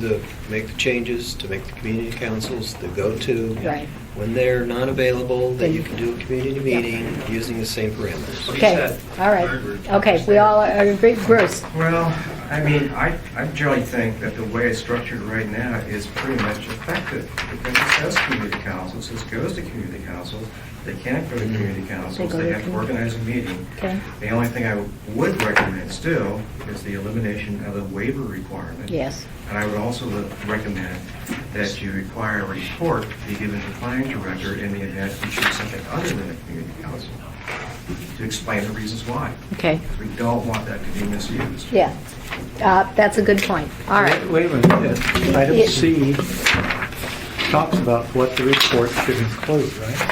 to make the changes, to make the community councils the go-to. Right. When they're not available, then you can do a community Yeah. meeting using the same parameters. Okay, all right. Okay, we all are- agree, Bruce? Well, I mean, I, I generally think that the way it's structured right now is pretty much effective. Because it says community councils, it goes to community councils, they can't go to community councils, They go they to have to commu- organize a meeting. Okay. The only thing I would recommend still is the elimination of the waiver requirement. Yes. And I would also le- recommend that you require a report be given to the planning director in the event you choose something other than a community council, to explain the reasons why. Okay, Because we don't want that to be misused. yeah. Uh, That's a good point. All right. Wait a minute, Yeah. item C talks about what the report should include, right?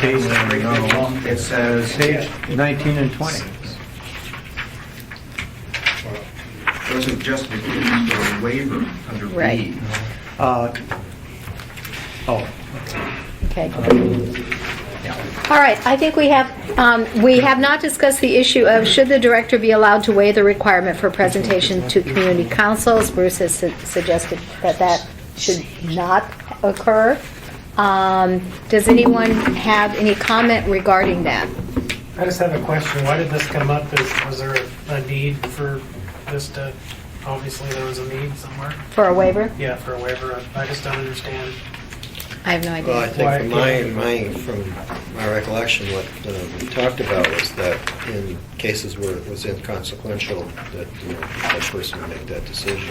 Page It says, Page 19 and 20. those are justifications for a waiver under Right. B. Uh, Oh, Um, Okay. All right, I think we have, um, we have not discussed the issue of should the director be allowed to waive the requirement for presentation to community councils? Bruce has su- suggested that that should not occur. Um, Does anyone have any comment regarding that? I just have a question. Why did this come up? Is, was there a need for this to, obviously there was a need somewhere? For a waiver? Yeah, for a waiver. I just don't understand. I have no Well, I idea. think from my, my, from my recollection, what uh, we talked about was that in cases where it was inconsequential, that, you know, that person would make that decision.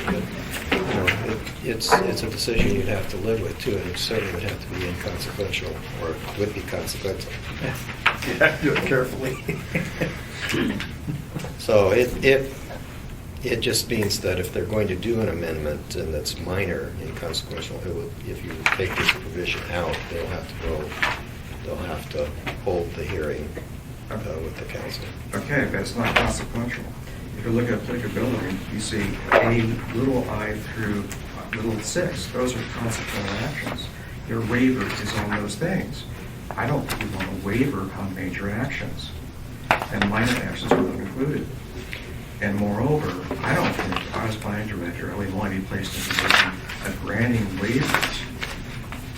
But, you know, it- it's, it's a decision you'd have to live with too, and it certainly would have to be inconsequential, or would be consequential. Do it carefully. So it, it, it just means that if they're going to do an amendment and that's minor, inconsequential, it would, if you take this provision out, they'll have to go, they'll have to hold the hearing uh, with the council. Okay, but it's not consequential. If you look at applicability, you see A, little i through uh, little six, those are consequential actions. Your waiver is on those things. I don't think we want a waiver on major actions, and minor actions were not included. And moreover, I don't think, if I was planning director, I would want to be E placed in a position of granting waivers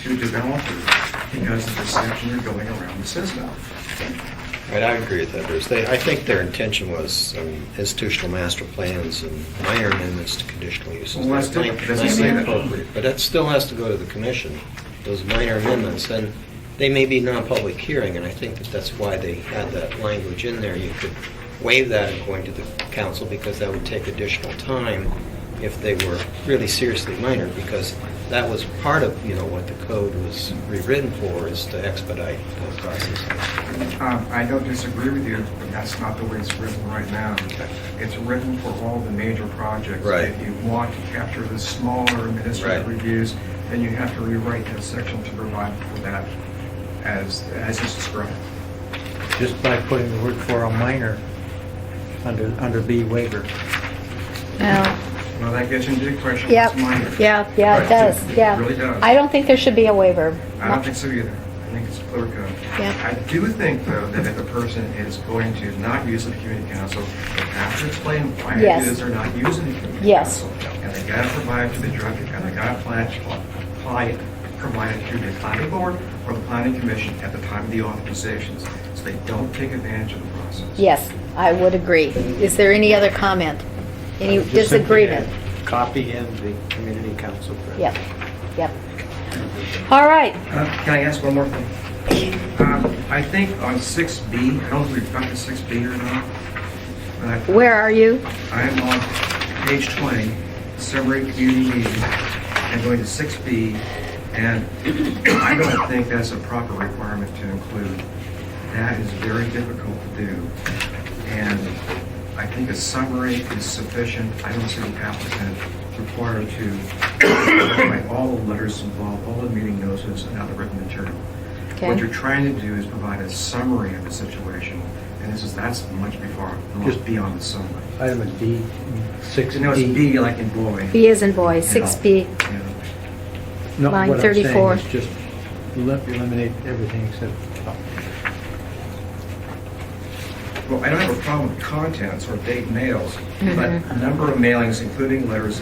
to developers because of the deception are going around the system. Right, I agree with that, Bruce. They, I think their intention was um, institutional master plans and minor amendments to conditional uses. Well, that's different. That might Doesn't be say that. appropriate, But that still has to go to the commission, those minor amendments, and they may be non-public hearing, and I think that that's why they had that language in there. You could waive that in going to the council, because that would take additional time if they were really seriously minor, because that was part of, you know, what the code was rewritten for, is to expedite the process. Um, I don't disagree with you, but that's not the way it's written right now. It's written for all the major projects. Right. If you want to capture the smaller administrative Right. reviews, then you have to rewrite that section to provide for that as, as it's described. just by putting the word for a minor under, under B waiver. No. Well, that gets into the question, Oh, Yep, what's minor? yeah, yeah, it Right. does, yeah. It really does. I don't think there should be a waiver. I don't think so either. I think it's clear cut. Yeah. I do think, though, that if a person is going to not use the community council, they have to explain why it Yes. is they're not using the community Yes. council. And they gotta provide to the director, and they gotta plan, apply it, provide it to the planning board or the planning commission at the time of the authorizations, so they don't take advantage of the process. Yes, I would agree. Is there any other comment? Any Just simply disagreement? add Copy in the community council. Yep, yep. All right, Uh, Can I ask one more thing? Um, I think on 6B, I don't know if we've got to 6B or not, but I where are you? I am on page 20, summary community meeting, and going to 6B, and I don't think that's a proper requirement to include. That is very difficult to do, and I think a summary is sufficient. I don't see the applicant required to provide all the letters involved, all the meeting notices, and other written material. Okay. What you're trying to do is provide a summary of the situation, and this is, that's much before, Just- beyond the summary. Item D, So no, it's 6D. B like in boy. B is in boy, 6B. Yeah. No, Line what I'm saying 34. is Just elim- eliminate everything except top. Well, I don't have a problem with contents or date mails, but number of mailings, including letters